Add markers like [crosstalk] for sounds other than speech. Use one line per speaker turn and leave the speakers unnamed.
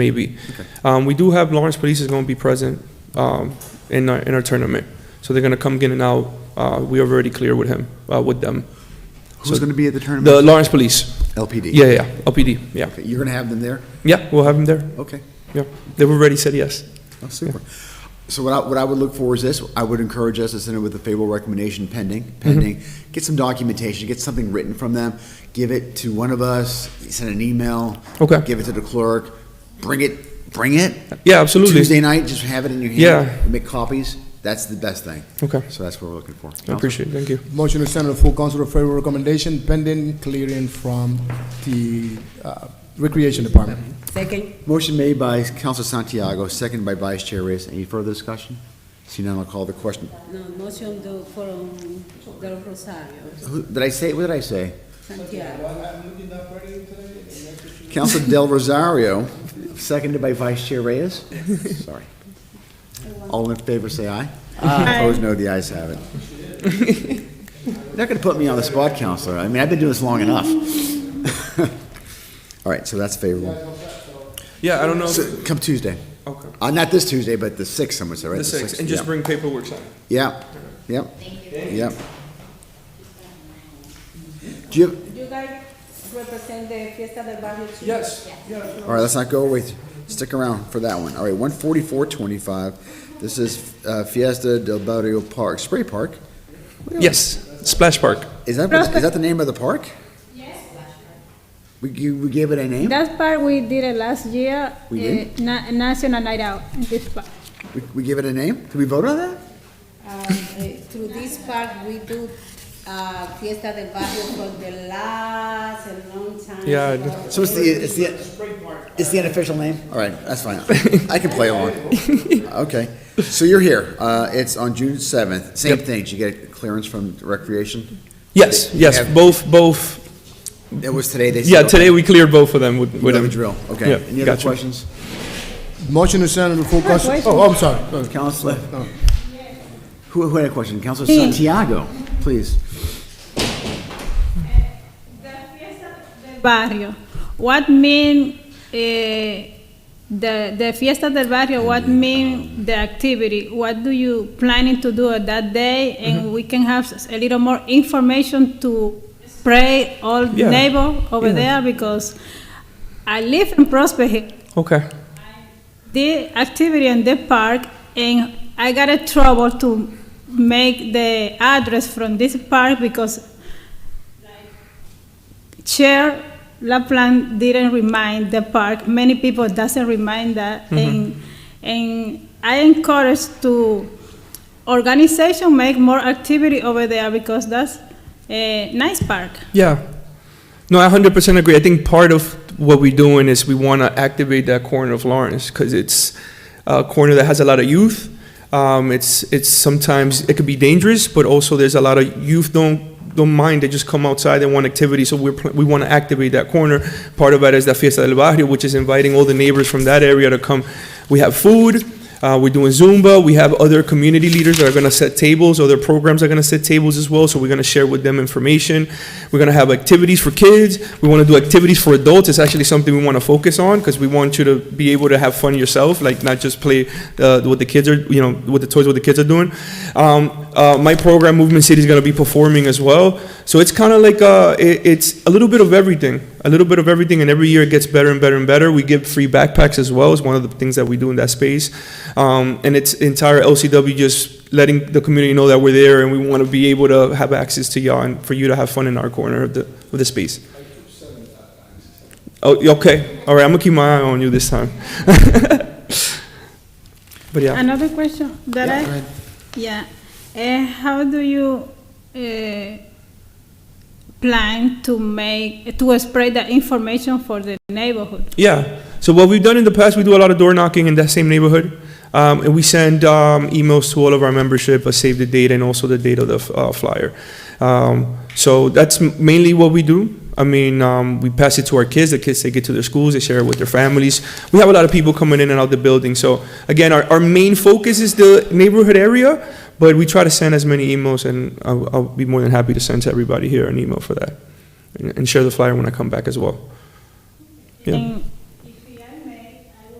maybe. Um, we do have Lawrence Police is going to be present um, in our in our tournament, so they're going to come in and out. Uh, we are already clear with him uh, with them.
Who's
So-
going to be at the
The
tournament?
Lawrence Police,
LPD?
yeah, yeah, yeah, LPD, yeah,
Okay, You're going to have them there?
yeah. We'll have him there.
Okay,
Yeah, they've already said yes.
oh, super. So what I, what I would look for is this, I would encourage us to send it with a favorable recommendation pending,
Mm-hmm.
pending. Get some documentation, get something written from them, give it to one of us, send an email.
Okay.
Give it to the clerk, bring it, bring it.
Yeah, absolutely.
Tuesday night, just have it in your hand.
Yeah.
Make copies, that's the best thing.
Okay.
So that's what we're looking for.
I appreciate it. Thank you.
Motion to send to the full council a favorable recommendation pending clearing from the uh, Recreation Department.
Second.
Motion made by Council Santiago, seconded by Vice Chair Reyes. Any further discussion? Seeing none, I'll call the question.
No, motion do, from Del Rosario,
Who- Did I say, what did I say?
Santiago.
Council Del Rosario, seconded by Vice Chair Reyes. Sorry. All in favor, say aye. Opposed, no, the ayes have it. You're Not gonna put me on the spot, Counselor. I mean, I've been doing this long enough. [laughs] All right, so that's favorable.
Yeah, I don't know.
So, Come Tuesday.
okay,
Uh, not this Tuesday, but the sixth, someone said, right?
the six,
sixth,
and just
yeah.
bring paperwork. Sign.
Yeah, yep, yep. Do you, have-
You guys represent the Fiesta del Barrio Chino?
Yes.
all right, let's not go away, stick around for that one. All right, one forty-four twenty-five, this is uh, Fiesta del Barrio Park, Spray Park.
Yes, Splash Park.
Is that, is that the name of the park? We, gi- we gave it a name?
That part we did it last year.
We
eh,
did?
na- National Night Out, in this part.
We, we gave it a name? Did we vote on that?
Um, eh, Through this part, we do uh, Fiesta del Barrio for the last and long time.
Yeah, I do.
So it's the, it's the, it's the unofficial name? All right, that's fine. I can play along. Okay, so you're here. Uh, it's on June seventh. Same
Yep.
thing, did you get clearance from Recreation?
Yes, yes,
Have-
both, both.
It was today they said.
Yeah, today we cleared both of them with,
We
with
have a
them.
drill, okay.
Yeah,
Any other
gotcha.
questions?
Motion to send to the full council, oh, I'm sorry.
Counselor? Who, who had a question? Counselor Santiago, please.
Barrio. What mean eh, the the Fiesta del Barrio? What mean the activity? What do you planning to do at that day? And we can have s- a little more information to pray all
Yeah.
neighbor over
Yeah.
there because I live in Prosper Hill.
Okay.
the activity in the park and I got a trouble to make the address from this park because Chair Laplan didn't remind the park. Many people doesn't remind that. And, and I encourage to organization make more activity over there because that's a nice park.
Yeah. No, I 100% agree. I think part of what we're doing is we want to activate that corner of Lawrence because it's a corner that has a lot of youth. Um, it's it's sometimes it could be dangerous, but also there's a lot of youth don't don't mind. They just come outside and want activity. So we're pl- we want to activate that corner. Part of that is the Fiesta del Barrio, which is inviting all the neighbors from that area to come. We have food. Uh, we're doing Zumba. We have other community leaders that are going to set tables. Other programs are going to set tables as well. So we're going to share with them information. We're going to have activities for kids. We want to do activities for adults. It's actually something we want to focus on because we want you to be able to have fun yourself, like not just play uh, what the kids are, you know, with the toys what the kids are doing. Um, uh, my program, Movement City, is going to be performing as well. So it's kind of like uh, it, it's a little bit of everything, a little bit of everything, and every year it gets better and better and better. We give free backpacks as well. It's one of the things that we do in that space, um, and it's entire LCW just letting the community know that we're there and we want to be able to have access to y'all and for you to have fun in our corner of the of the space. Oh, y- okay. All right, I'm gonna keep my eye on you this time. [laughs] but yeah.
Another question that I, yeah, Eh, how do you eh, plan to make, to spread the information for the neighborhood?
Yeah. So what we've done in the past, we do a lot of door knocking in that same neighborhood, um, and we send um, emails to all of our membership, uh, save the date, and also the date of the uh, flyer. Um, so that's m- mainly what we do. I mean, um, we pass it to our kids. The kids take it to their schools. They share it with their families. We have a lot of people coming in and out the building. So again, our, our main focus is the neighborhood area, but we try to send as many emails, and I'll, I'll be more than happy to send to everybody here an email for that, and, and share the flyer when I come back as well. Yeah.
And